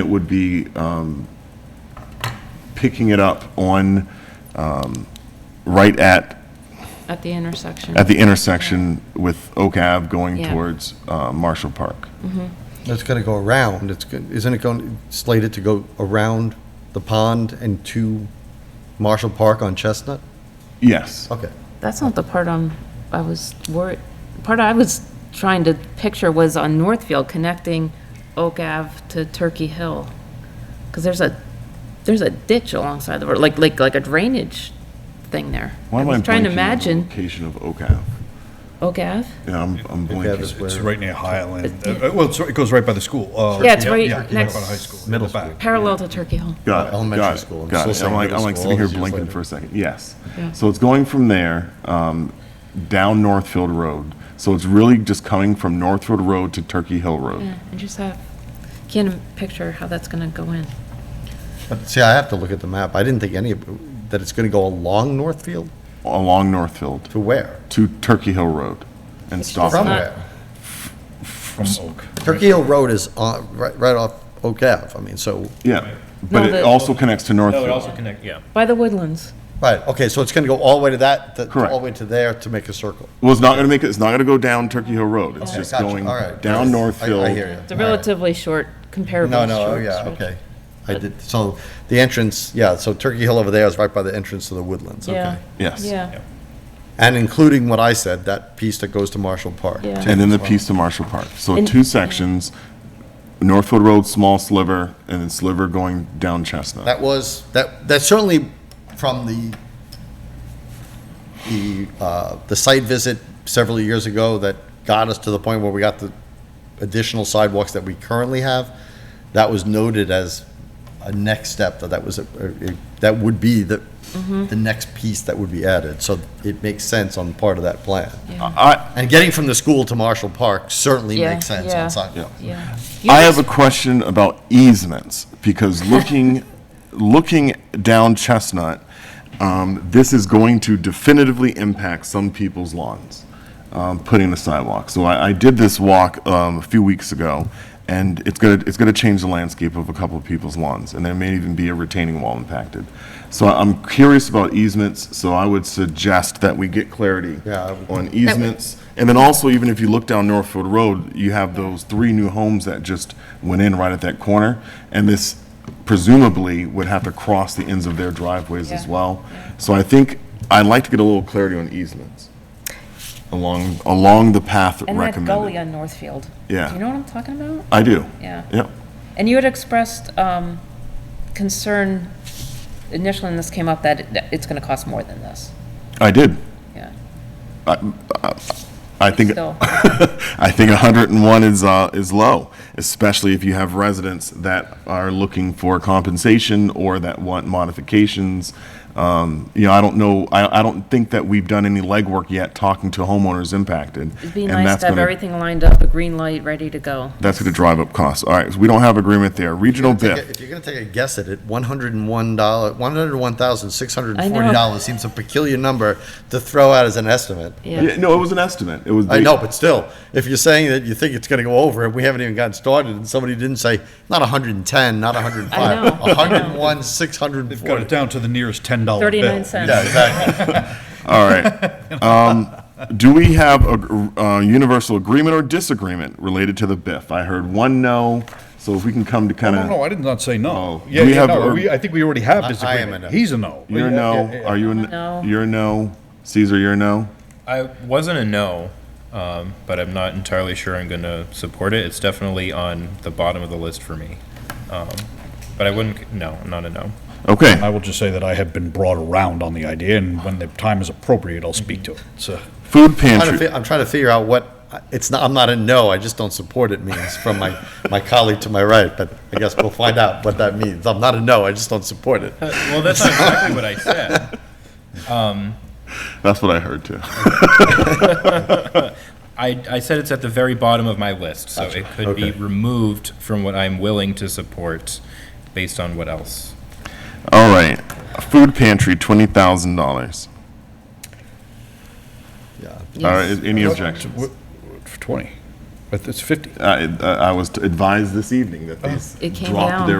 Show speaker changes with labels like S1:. S1: It would be um, picking it up on, um, right at,
S2: at the intersection.
S1: at the intersection with Oak Ave going
S2: Yeah.
S1: towards uh, Marshall Park.
S3: It's going to go around, it's, go- isn't it going, slated to go around the pond and to Marshall Park on Chestnut?
S1: Yes.
S3: Okay.
S2: That's not the part on, I was worried, part I was trying to picture was on Northfield, connecting Oak Ave to Turkey Hill. Because there's a, there's a ditch alongside the road, like, like, like a drainage thing there.
S1: Why
S2: I
S1: am
S2: was
S1: blanking
S2: trying
S1: on
S2: to
S1: the
S2: imagine
S1: Location of Oak Ave.
S2: Oak Ave.
S1: Yeah, I'm, I'm
S3: Oak Ave is
S1: blanking.
S3: where-
S4: It's right near Highland. Uh, Well, it's- it goes right by the school. Uh,
S2: Yeah, it's right next-
S4: by the high school.
S3: Middle
S4: Back.
S3: school.
S2: parallel to Turkey Hill.
S1: Got it,
S3: Elementary
S1: got it,
S3: school.
S1: Got it.
S3: Still
S1: I'm
S3: saying
S1: like, I'm
S3: middle
S1: like
S3: school,
S1: sitting here
S3: all these years
S1: blinking
S3: later.
S1: for a second. Yes.
S2: Yeah.
S1: So it's going from there, um, down Northfield Road. So it's really just coming from Northfield Road to Turkey Hill Road.
S2: Yeah, I just have, can't even picture how that's gonna go in.
S3: But See, I have to look at the map, I didn't think any, of that it's going to go along Northfield
S1: Along Northfield
S3: to where?
S1: to Turkey Hill Road and stop.
S3: From
S2: not-
S1: there.
S3: where?
S4: From Oak.
S3: Turkey Hill Road is on, right, right off Oak Ave, I mean, so,
S1: Yeah,
S2: No,
S1: but it
S2: the-
S1: also connects to
S5: That would
S1: Northfield.
S5: also connect, yeah.
S2: By the woodlands.
S3: right, okay, so it's going to go all the way to that, to- all
S1: Correct.
S3: the way to there to make a circle.
S1: Well, it's not gonna make it, it's not gonna go down Turkey Hill Road. It's just
S3: Gotcha,
S1: going
S3: all right.
S1: down
S3: I-
S1: Northfield.
S3: I hear you.
S2: It's a
S3: All right.
S2: relatively short, comparable
S3: No,
S2: short.
S3: no, oh, yeah,
S2: stretch.
S3: okay. I did, so the entrance, yeah, so Turkey Hill over there is right by the entrance to the Woodlands,
S2: Yeah.
S3: okay.
S1: Yes.
S2: Yeah,
S3: And including what I said, that piece that goes to Marshall Park.
S2: Yeah.
S3: too,
S1: And then the
S3: as well.
S1: piece to Marshall Park. So
S2: And-
S1: two sections, Northfield Road, small sliver, and then sliver going down Chestnut.
S3: That was, that, that certainly from the, the, uh, the site visit several years ago that got us to the point where we got the additional sidewalks that we currently have, that was noted as a next step, that that was, a- a- that would be the,
S2: Mm-hmm.
S3: the next piece that would be added. So it makes sense on part of that plan.
S2: yeah,
S1: I,
S3: And getting from the school to Marshall Park certainly
S2: Yeah,
S3: makes sense
S2: yeah.
S3: on sidewalks.
S2: yeah.
S1: I have a question about easements, because looking, looking down Chestnut, um, this is going to definitively impact some people's lawns, um, putting the sidewalk. So I, I did this walk, um, a few weeks ago, and it's gonna, it's gonna change the landscape of a couple of people's lawns, and there may even be a retaining wall impacted. So I'm curious about easements, so I would suggest that we get clarity
S3: Yeah, I would-
S1: on easements. And then also, even if you look down Northfield Road, you have those three new homes that just went in right at that corner. And this presumably would have to cross the ends of their driveways as
S2: Yeah.
S1: well. So I think, I'd like to get a little clarity on easements along, along the path
S2: And that gully
S1: recommended.
S2: on Northfield.
S1: Yeah.
S2: Do you know what I'm talking about?
S1: I do.
S2: Yeah.
S1: Yep.
S2: And you had expressed um, concern initially when this came up that it- that it's going to cost more than this.
S1: I did.
S2: Yeah.
S1: I think.
S2: Still,
S1: I think 101 is, uh, is low, especially if you have residents that are looking for compensation or that want modifications. Um, you know, I don't know, I, I don't think that we've done any legwork yet talking to homeowners impacted.
S2: it'd be
S1: and
S2: nice
S1: that's
S2: to have
S1: gonna-
S2: everything lined up, a green light, ready to go.
S1: That's gonna drive up costs. All right, so we don't have agreement there. Regional
S3: Take a-
S1: BIF.
S3: If you're gonna take a guess at it, one hundred and one dollar, one hundred and one thousand, six hundred and forty dollars seems a peculiar number to throw out as an estimate.
S1: Yeah, no, it was an estimate. It was.
S3: I know, but still, if you're saying that you think it's gonna go over, and we haven't even gotten started, and somebody didn't say, not hundred and ten, not hundred and
S2: I
S3: five,
S2: know, I know.
S3: hundred and one, six hundred and
S4: They've got it
S3: forty.
S4: down to the nearest $10 bill.
S2: 39 cents.
S3: Yeah, exactly.
S1: All right. Um, do we have a, uh, universal agreement or disagreement related to the BIF? I heard one no, so if we can come to kind
S4: No,
S1: of.
S4: no, I did not say
S1: Oh,
S4: no. Yeah,
S1: we
S4: yeah,
S1: have
S4: no,
S1: a-
S4: we- I think we already have
S3: I-
S4: this
S3: I am
S4: agreement.
S3: a no.
S4: He's a no.
S1: You're a
S4: Yeah,
S1: no.
S4: yeah, yeah.
S1: Are you a
S2: No.
S1: no? You're a no. Caesar, you're a no.
S5: I wasn't a no, um, but I'm not entirely sure I'm going to support it. It's definitely on the bottom of the list for me. Um, But I wouldn't, no, I'm not a no.
S1: Okay.
S4: I will just say that I have been brought around on the idea, and when the time is appropriate, I'll speak to it. uh, So,
S1: Food
S3: I'm trying to
S1: pantry.
S3: fi- I'm trying to figure out what, it's not, I'm not a no, I just don't support it means from my, my colleague to my right, but I guess we'll find out what that means. I'm not a no, I just don't support it.
S5: Well, that's not exactly what I said.
S1: That's what I heard too.
S5: I, I said it's at the very bottom of my list, so it could be
S3: Okay.
S5: removed from what I'm willing to support based on what else.
S1: All right. Food pantry, twenty thousand dollars.
S3: Yeah.
S1: All right. Any objections?
S4: for 20. But it's 50.
S1: I, I I was advised this evening that these
S2: It came
S1: dropped
S4: Uh-huh.
S2: down.
S1: their